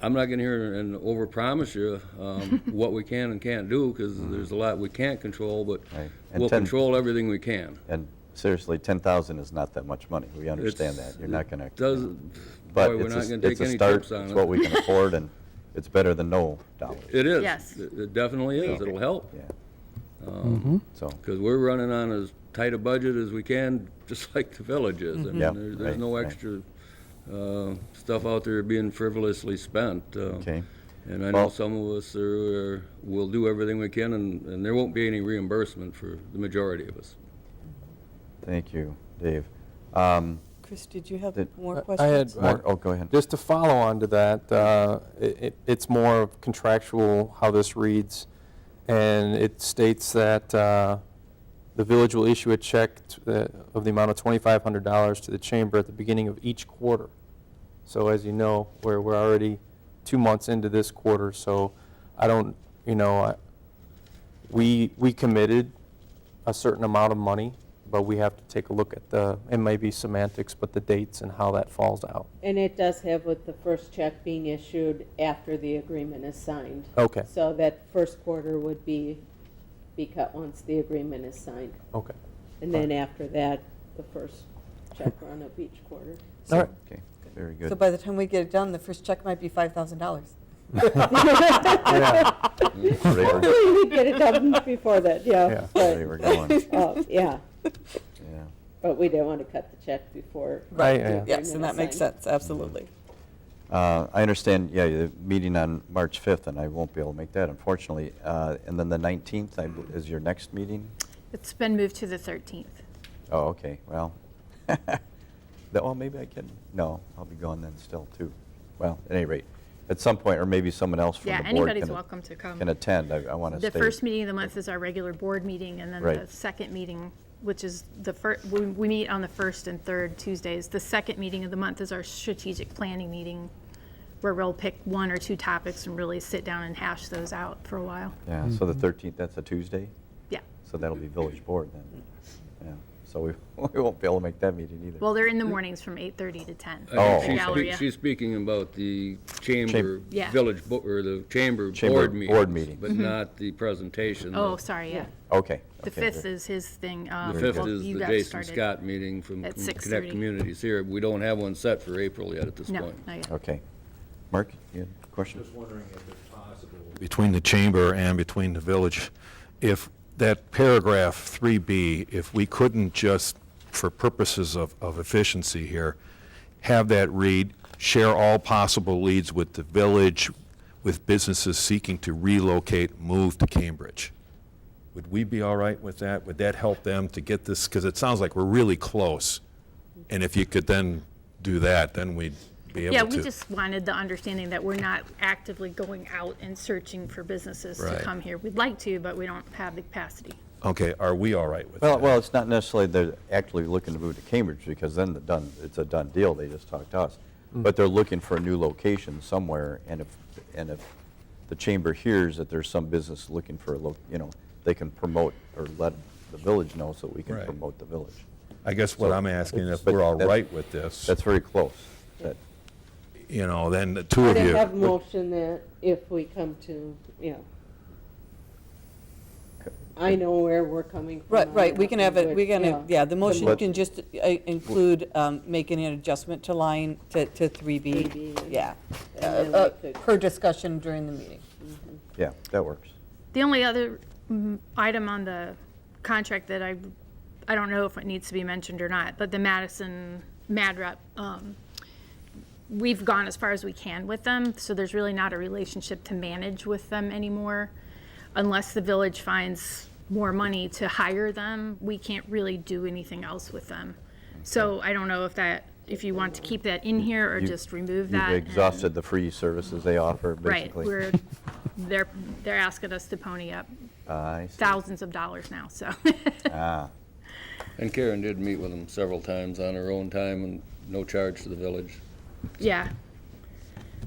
I'm not gonna hear and overpromise you, um, what we can and can't do, because there's a lot we can't control, but Mm-hmm. Right. And we'll ten- control everything we can. And seriously, 10,000 is not that much money. We understand It's- that. You're not going to. Does, But boy, we're it's a- not gonna take it's a any start. trips on it. It's what we can afford, and it's better than no dollars. It is. Yes. It it definitely is. It'll help, Yeah. Um, So, because we're running on as tight a budget as we can, just like the village is. I mean, Mm-hmm. Yeah, there- right, There's no right. extra uh, stuff out there being frivolously spent. uh, okay. And I know Well- some of us are, are- will do everything we can, and, and there won't be any reimbursement for the majority of us. Thank you, Dave. Um, Chris, did you have Did- more I had- questions? More, oh, go ahead. Just to follow on to that, uh, it- it- it's more of contractual, how this reads, and it states that uh, the village will issue a check to the- of the amount of $2,500 to the chamber at the beginning of each quarter. So as you know, we're we're already two months into this quarter, so I don't, you know, I- we we committed a certain amount of money, but we have to take a look at the, it may be semantics, but the dates and how that falls out. And it does have with the first check being issued after the agreement is signed. Okay. So that first quarter would be, be cut once the agreement is signed. Okay. And then after that, the first check run of each quarter. All right. Okay, very So good. by the time we get it done, the first check might be $5,000. Right where- Hopefully we'd get it done before that, yeah. Yeah. right where we're But, going, uh, yeah, yeah. but we didn't want to cut the check before. Right, yeah. Yes, and that makes sense, absolutely. Uh, I understand, yeah, the meeting on March 5th, and I won't be able to make that, unfortunately. Uh, And then the 19th I bel- is your next meeting? It's been moved to the 13th. Oh, okay, well, that, well, maybe I can, no, I'll be gone then still, too. Well, at any rate, at some point, or maybe someone else from the Yeah, board can... anybody's a- welcome to come. Can attend, I want to stay. The first meeting of the month is our regular board meeting, and then Right. the second meeting, which is the first, we, we meet on the first and third Tuesdays. The second meeting of the month is our strategic planning meeting, where we'll pick one or two topics and really sit down and hash those out for a while. Yeah, so the 13th, that's a Tuesday? Yeah. So that'll be village board then. Yeah, so we, we won't be able to make that meeting either. Well, they're in the mornings from 8:30 to 10. Oh, I think okay. she's spe- Galleria. She's speaking about the chamber, Yeah. Mm-hmm. village, bo- or the chamber Chamber board board meetings. meeting. But not the presentation. Oh, sorry, yeah. Okay. The okay, fifth good. is his thing. um, The fifth well, is you the got Jason started. Scott meeting from At from 6:30. Connect Communities here. We don't have one set for April yet at this No, point. not yet. Okay. Mark, you had a question? Just wondering if it's possible. Between the chamber and between the village, if that paragraph 3B, if we couldn't just, for purposes of, of efficiency here, have that read, share all possible leads with the village, with businesses seeking to relocate, move to Cambridge. Would we be all right with that? Would that help them to get this? Because it sounds like we're really close. And if you could then do that, then we'd be able to. Yeah, we just wanted the understanding that we're not actively going out and searching for businesses to Right. come here. We'd like to, but we don't have the capacity. Okay, are we all right with that? Well, well, it's not necessarily they're actually looking to move to Cambridge, because then the done, it's a done deal, they just talked to us. But they're looking for a new location somewhere, and if, and if the chamber hears that there's some business looking for a loc, you know, they can promote or let the village know so we can Right. promote the village. I guess what I'm asking, if But we're all that- right with this, That's very close. That- you know, then the two of They have you, motion that if we come to, you know, I know where we're coming from. Right, I right, know we can have what- it, we can, yeah, the motion But- can just uh, include um, making an adjustment to line, to to 3B. 3B, and- Yeah, Uh, then we uh, could- per discussion during the meeting. Yeah, that works. The only other mm, item on the contract that I, I don't know if it needs to be mentioned or not, but the Madison Mad Rep, um, we've gone as far as we can with them, so there's really not a relationship to manage with them anymore. Unless the village finds more money to hire them, we can't really do anything else with them. So I don't know if that, if you want to keep that in here or You- just remove that. You've and- exhausted the free services they offer, Right, basically. we're, they're, they're asking us to pony up Ah, I see. thousands of dollars now, so. Ah, And Karen did meet with them several times on her own time and no charge to the village. Yeah.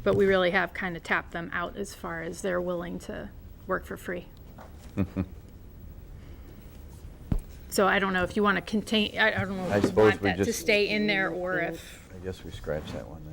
But we really have kind of tapped them out as far as they're willing to work for free. So I don't know if you want to contain, I I don't know I if you suppose want we that to just- stay in there or if, I guess we scratched that one